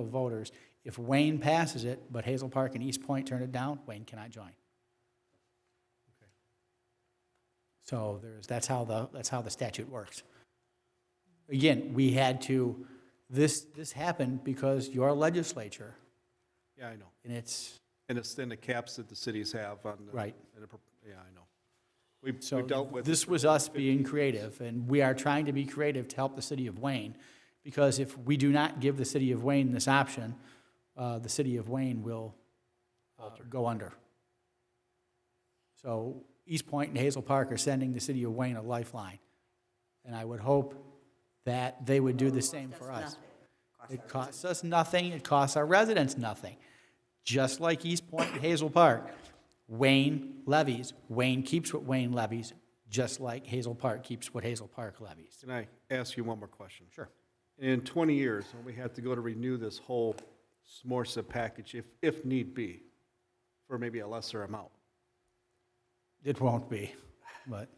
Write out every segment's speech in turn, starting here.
of voters. If Wayne passes it, but Hazel Park and East Point turn it down, Wayne cannot join. So there's, that's how the, that's how the statute works. Again, we had to, this, this happened because your legislature, Yeah, I know. and it's, And it's in the caps that the cities have on the. Right. and the pro- Yeah, I know. We've So we've dealt with. This was us being creative, and we are trying to be creative to help the city of Wayne, because if we do not give the city of Wayne this option, uh, the city of Wayne will uh, go under. So East Point and Hazel Park are sending the city of Wayne a lifeline, and I would hope that they would do the same for us. It costs us nothing, it costs our residents nothing. Just like East Point and Hazel Park, Wayne levies, Wayne keeps what Wayne levies, just like Hazel Park keeps what Hazel Park levies. Can I ask you one more question? Sure. In 20 years, when we have to go to renew this whole SMORSA package, if, if need be, for maybe a lesser amount, It won't be, but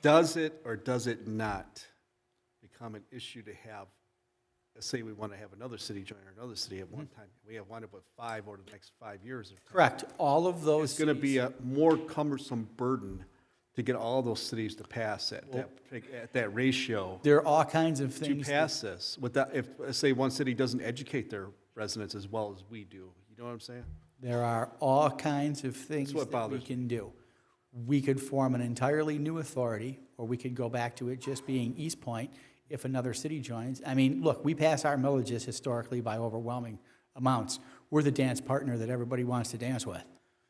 does it or does it not become an issue to have, let's say we want to have another city join or another city at one Mm-hmm. time, we have one with five over the next five years or correct, all of those It's going to be cities- a more cumbersome burden to get all those cities to pass at that, at that ratio. There are all kinds of To things. that- pass this, without, if, let's say, one city doesn't educate their residents as well as we do, you know what I'm saying? There are all kinds of things what that we bothers me. can do. We could form an entirely new authority, or we could go back to it just being East Point if another city joins. I mean, look, we pass our millages historically by overwhelming amounts. We're the dance partner that everybody wants to dance with.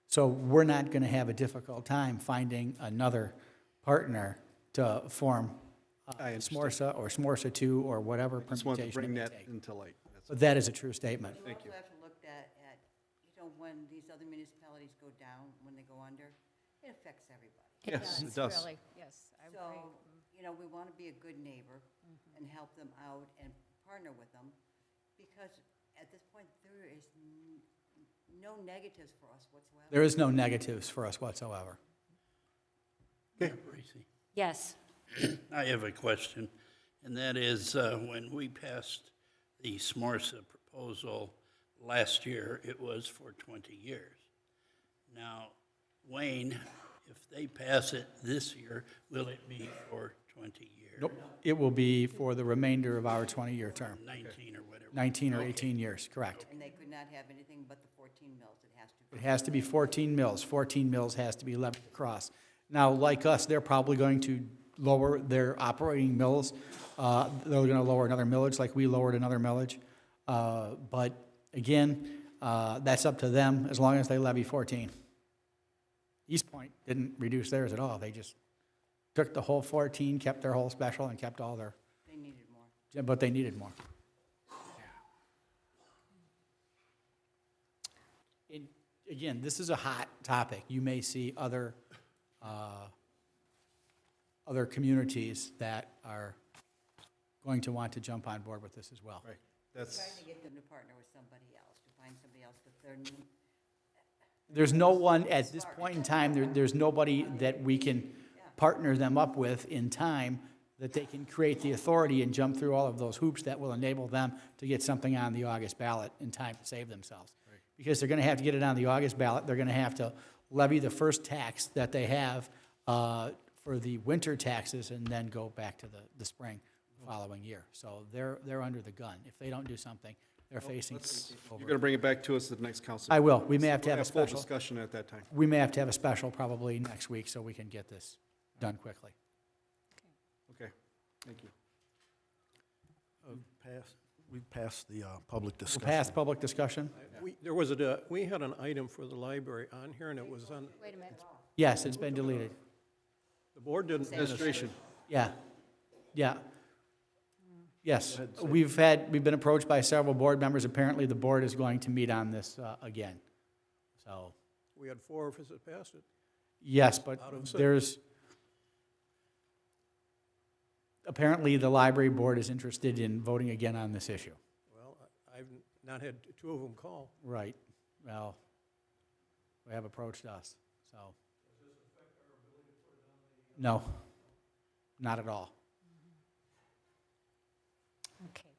So we're not gonna have a difficult time finding another partner to form uh, I SMORSA or SMORSA two or whatever Just permutation it wanted to bring may that take. into light. That's- But that is a true statement. You also have to look at, at, you know, when these other municipalities go down, when they go under, it affects everybody. Yes, it does. Really, yes, I agree. Mm-hmm. So, you know, we want to be a good neighbor and help them out and partner with them, because at this point, there is n- no negatives for us whatsoever. There is no negatives for us whatsoever. Mayor Parisi, Yes, I have a question, and that is, uh, when we passed the SMORSA proposal last year, it was for 20 years. Now, Wayne, if they pass it this year, will it be for 20 years? Nope, it will be for the remainder of our 20-year term, 19 or whatever. 19 or 18 years, correct. And they could not have anything but the 14 mills, it has to It be. has to be 14 mills, 14 mills has to be levied across. Now, like us, they're probably going to lower their operating mills, Uh, they're going to lower another millage like we lowered another millage. Uh, But again, uh, that's up to them, as long as they levy 14. East Point didn't reduce theirs at all, they just took the whole 14, kept their whole special, and kept all their, They needed more. but they needed more. And again, this is a hot topic. You may see other, uh, other communities that are going to want to jump on board with this as well. Right, that's, Trying to get them to partner with somebody else, to find somebody else, if they're, new- There's no one, at this point in time, there, there's nobody that we can partner them up with in time that they can create the authority and jump through all of those hoops that will enable them to get something on the August ballot in time to save themselves. Because they're gonna have to get it on the August ballot, they're gonna have to levy the first tax that they have, uh, for the winter taxes and then go back to the, the spring the following year. So they're, they're under the gun. If they don't do something, they're facing. you're going to bring it back to us at the next council. I will. We may have to We'll have a full special- discussion at that time. we may have to have a special probably next week so we can get this done quickly. Okay, thank you. Pass- We've passed the uh, public We'll discussion. pass public discussion? We, there was a, uh, we had an item for the library on here, and it was on, wait a minute. Yes, it's been deleted. the board didn't. Administration, Yeah, yeah. Yes, we've had, we've been approached by several board members. Apparently, the board is going to meet on this uh, again. So, We had four of us that passed it. yes, but Out of six. there's, apparently, the library board is interested in voting again on this issue. Well, I- I've not had two of them call. Right, well, they have approached us, so. Does this affect our ability to put it on the? No, not at all. Okay.